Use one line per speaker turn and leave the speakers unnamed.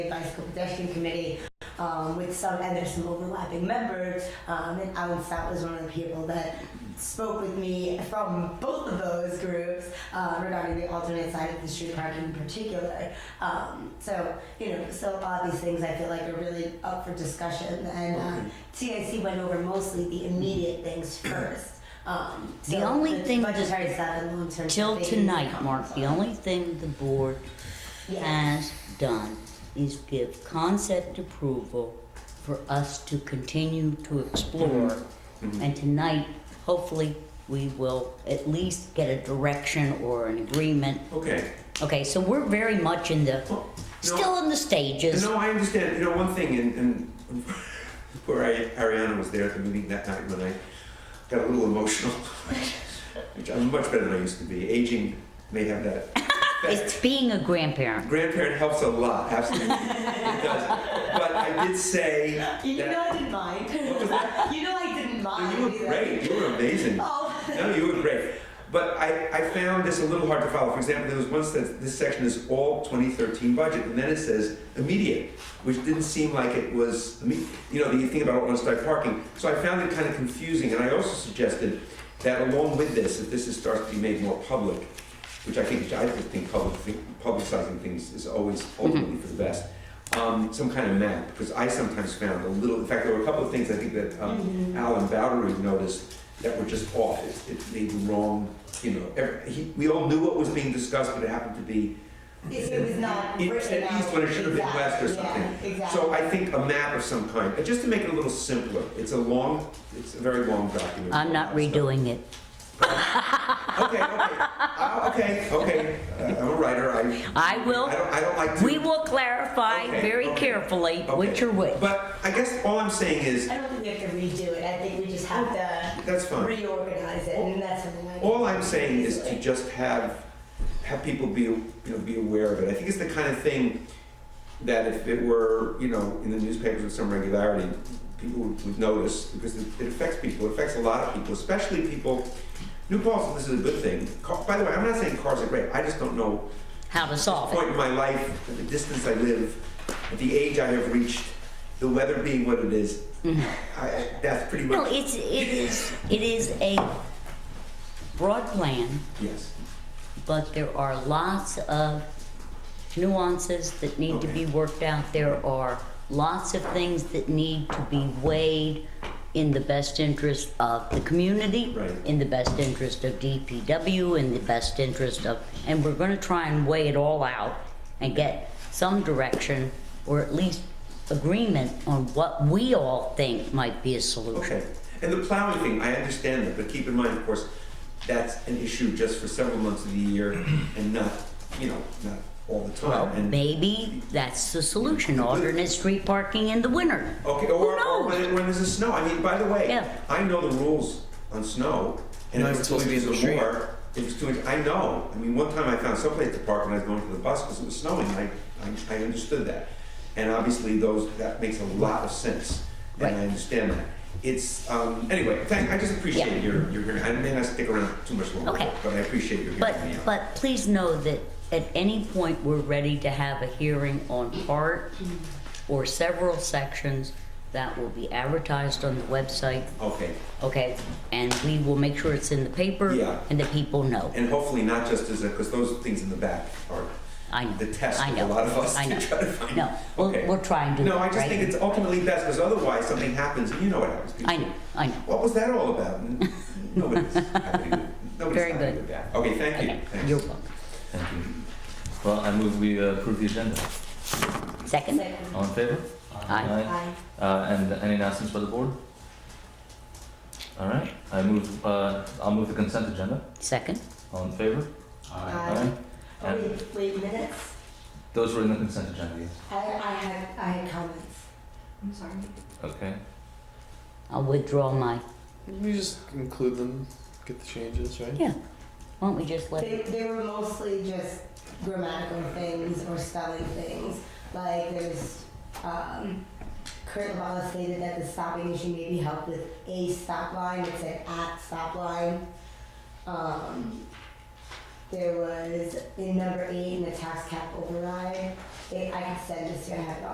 bicycle pedestrian committee um, with some and there's some overlapping members um, and alan stout was one of the people that spoke with me from both of those groups uh, regarding the alternate side of the street parking in particular um, so you know so a lot of these things i feel like are really up for discussion and uh, tic went over mostly the immediate things first um,
The
so
only thing that-
budgetary stuff and long-term
Till
savings
tonight,
and
Mark, the
comments on.
only thing the board
yeah.
has done is give concept approval for us to continue to explore.
Mm-hmm.
And tonight, hopefully, we will at least get a direction or an agreement.
Okay.
Okay, so we're very much in the,
Well, no,
still in the stages.
No, I understand. You know, one thing, and, and poor Ari- Ariana was there at the meeting that night when I got a little emotional, which I'm much better than I used to be. Aging may have that. effect.
It's being a grandparent.
Grandparent helps a lot, absolutely. it does. But I did say
You know
that.
I didn't mind.
What was that?
you know I didn't mind.
You were
either.
great. You were amazing.
Oh,
No, you were great. But I, I found this a little hard to follow. For example, there was once that this section is all 2013 budget, and then it says immediate, which didn't seem like it was, imme- you know, the thing about on-site parking. So I found it kind of confusing, and I also suggested that along with this, if this is, starts to be made more public, which I think, I think public, thi- publicizing things is always ultimately for the best, um, some kind of map, because I sometimes found a little, in fact, there were a couple of things I think that um, Alan Bowdery noticed that were just off. It, it made wrong, you know, every, he, we all knew what was being discussed, but it happened to be
if it was not
it-
written
at
out,
least when it should have been west
exactly,
or something.
Yeah, exactly.
So I think a map of some kind, uh, just to make it a little simpler. It's a long, it's a very long document.
I'm not redoing it.
Okay, okay, Uh, okay, okay. Uh, I'm a writer. I
I will,
I don't, I don't like to.
we will clarify
Okay,
very
okay,
carefully
okay.
which are which.
But I guess all I'm saying is
I don't think we have to redo it. I think we just have to
that's fine.
reorganize it, and that's something I.
All I'm saying is to just have, have people be, you know, be aware of it. I think it's the kind of thing that if it were, you know, in the newspapers with some regularity, people would would notice because it it affects people, it affects a lot of people, especially people, New Paltz, this is a good thing. Car- By the way, I'm not saying cars are great, I just don't know
How to solve it.
point in my life, at the distance I live, at the age I have reached, the weather being what it is, I, I- that's pretty
No,
much,
it's, it is, it is a broad plan,
yes.
but there are lots of nuances that need to be worked out. There are lots of things that need to be weighed in the best interest of the community,
Right.
in the best interest of DPW, in the best interest of, and we're gonna try and weigh it all out and get some direction or at least agreement on what we all think might be a solution.
Okay. And the plowing thing, I understand that, but keep in mind, of course, that's an issue just for several months of the year and not, you know, not all the
Well,
time. And,
maybe that's the solution, alternate street parking in the winter.
okay,
who
or, or
knows?
when, it- when there's a snow. I mean, by the
Yeah.
way, I know the rules on snow. And
No,
if
it's
it's two
supposed to be
inches
in the
or
street.
more, if it's two inches, I know. I mean, one time I found someplace to park when I was going to the bus because it was snowing. I, I, I understood that. And obviously those, that makes a lot of sense. And
Right.
I understand that. It's, um, anyway, thank, I just appreciate
Yeah.
your, your hearing. I may not stick around too much longer,
Okay.
but I appreciate your
But,
hearing me out.
but please know that at any point, we're ready to have a hearing on part or several sections that will be advertised on the website,
Okay,
okay? And we will make sure it's in the paper
Yeah.
and that people know.
and hopefully not just as a, because those things in the back are
I know.
the test
I
of a
know,
lot of us
I
to
know.
try to find.
No, we'll,
Okay.
we'll try and do that,
No, I
right?
just think it's ultimately best, because otherwise something happens, and you know what happens. people
I know, I know.
What was that all about? And Nobody's happy with, nobody's
Very
happy
good.
with that. Okay, thank you.
Okay,
Thanks.
You're welcome.
Thank you. Well, I move we uh, approve the agenda.
Second?
Second.
All in favor?
Aye.
Aye.
Uh, and any announcements by the board? All right, I move, uh, I'll move the consent agenda.
Second?
All in favor?
Aye. Oh,
And
wait, wait minutes.
those were in the consent agenda, yes.
I, I had I had comments.
I'm sorry.
Okay.
I'll withdraw my,
We just include them, get the changes, right?
yeah. Why don't we just let,
They, they were mostly just grammatical things or spelling things. Like there's, um, Kurt Lavala stated that the stopping issue may be helped with a stop line. It said at stop line. Um, There was in number eight in the tax cap override. It, I can send this to you. I have it